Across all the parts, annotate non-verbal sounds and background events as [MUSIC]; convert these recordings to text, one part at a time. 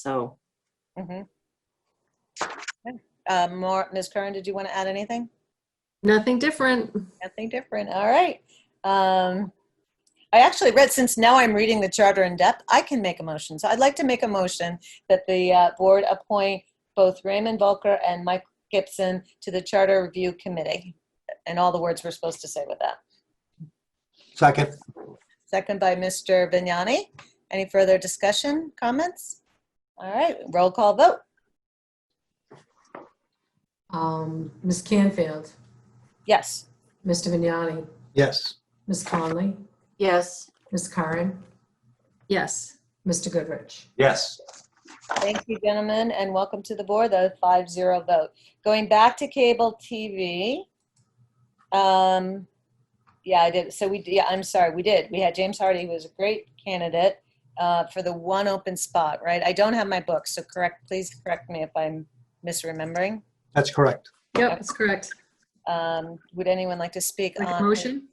So, Mhm. Okay. Uh, More, Ms. Curran, did you want to add anything? Nothing different. Nothing different, all right. Um, I actually read, since now I'm reading the charter in depth, I can make a motion. So I'd like to make a motion that the uh, board appoint both Raymond Volker and Mike Gibson to the Charter Review Committee. And all the words we're supposed to say with that. Second, Second by Mr. Vignani. Any further discussion, comments? All right, roll call vote. Um, Ms. Canfield, Yes. Mr. Vignani, yes. Ms. Conley, yes, Ms. Curran, yes. Mr. Goodrich. Yes. Thank you, gentlemen, and welcome to the board, the 5-0 vote. Going back to cable TV, um, yeah, I did, so we, yeah, I'm sorry, we did. We had James Hardy, who was a great candidate uh, for the one open spot, right? I don't have my book, so correct, please correct me if I'm misremembering. That's correct. Yep, that's correct. Um, Would anyone like to speak Make a on? motion.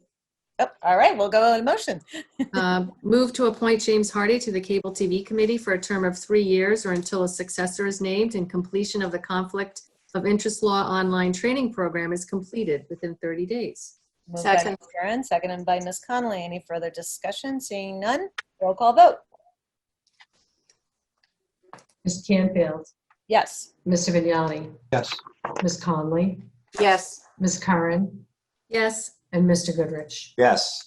Oh, All right, we'll go on motion. Uh, Move to appoint James Hardy to the Cable TV Committee for a term of three years or until a successor is named and completion of the Conflict of Interest Law online training program is completed within 30 days. Moved by Second. Ms. Curran, seconded by Ms. Conley. Any further discussion? Seeing none, roll call vote. Ms. Canfield, Yes. Mr. Vignani, Yes. Ms. Conley, Yes. Ms. Curran, Yes. and Mr. Goodrich. Yes.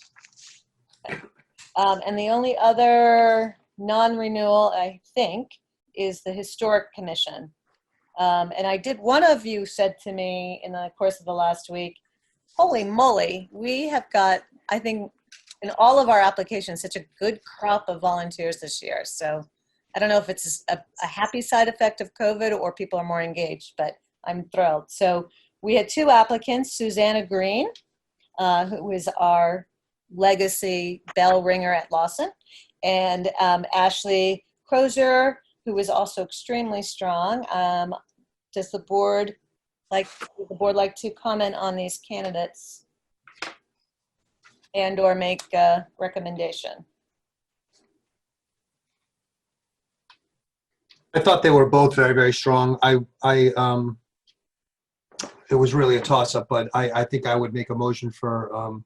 Um, and the only other non-renewal, I think, is the Historic Commission. Um, and I did, one of you said to me in the course of the last week, holy moly, we have got, I think, in all of our applications, such a good crop of volunteers this year. So I don't know if it's a, a happy side effect of COVID or people are more engaged, but I'm thrilled. So we had two applicants, Susanna Green, uh, who is our legacy bell ringer at Lawson, and um, Ashley Crozier, who was also extremely strong. Um, does the board like would the board like to comment on these candidates and or make a recommendation? I thought they were both very, very strong. I, I, um, it was really a toss-up, but I, I think I would make a motion for, um,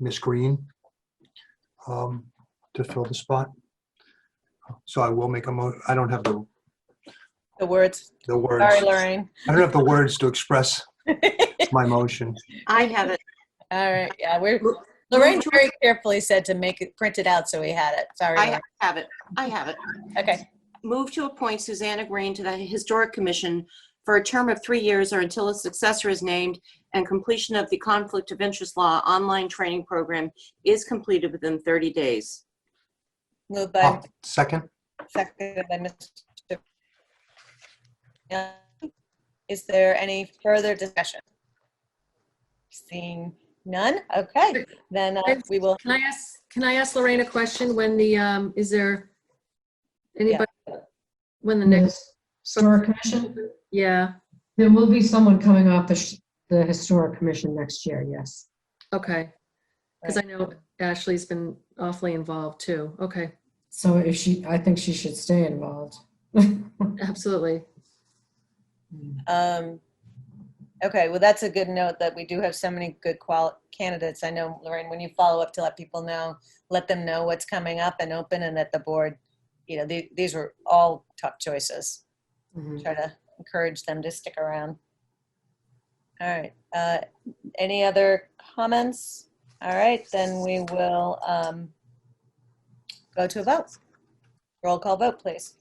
Ms. Green, um, to fill the spot. So I will make a mo, I don't have the, The words. the words. Sorry, Lorraine. I don't have the words to express my motion. I have it. All right. Yeah, we're Lorraine very carefully said to make it print it out so we had it. Sorry. I have it. I have it. Lorraine. okay. Move to appoint Susanna Green to the Historic Commission for a term of three years or until a successor is named and completion of the Conflict of Interest Law online training program is completed within 30 days. Moved by Oh, Second? Seconded by Mr. Young. Is there any further discussion? Seeing none, okay, then uh, we will, Can I ask, can I ask Lorraine a question when the, um, is there anybody, when the next, Yes. Historic Commission, yeah, there will be someone coming off the, sh- the Historic Commission next year, yes. okay. Because I know Ashley's been awfully involved too. Okay, So if she, I think she should stay involved. [LAUGHS] absolutely. um, okay, well, that's a good note that we do have so many good qual, candidates. I know, Lorraine, when you follow up to let people know, let them know what's coming up and open and that the board, you know, the- these were all tough choices. try to encourage them to stick around. All right, uh, any other comments? All right, then we will um, go to a vote. Roll call vote, please.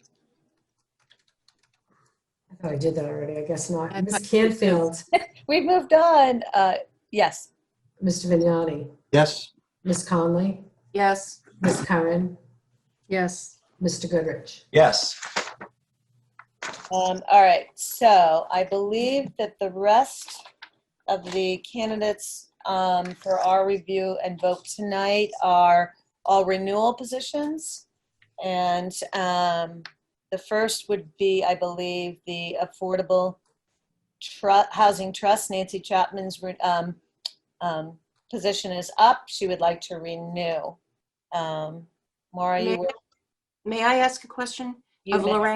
I thought I did that already, I guess not. I Ms. thought you did too. Canfield, We've moved on, uh, yes, Mr. Vignani, Yes? Ms. Conley, Yes. Ms. Curran, Yes, Mr. Goodrich. Yes. Um, all right, so I believe that the rest of the candidates um, for our review and vote tonight are all renewal positions. And um, the first would be, I believe, the Affordable Tru- Housing Trust, Nancy Chapman's re- um, um, position is up. She would like to renew. Um, Maura, you, May I ask a question you of may- Lorraine?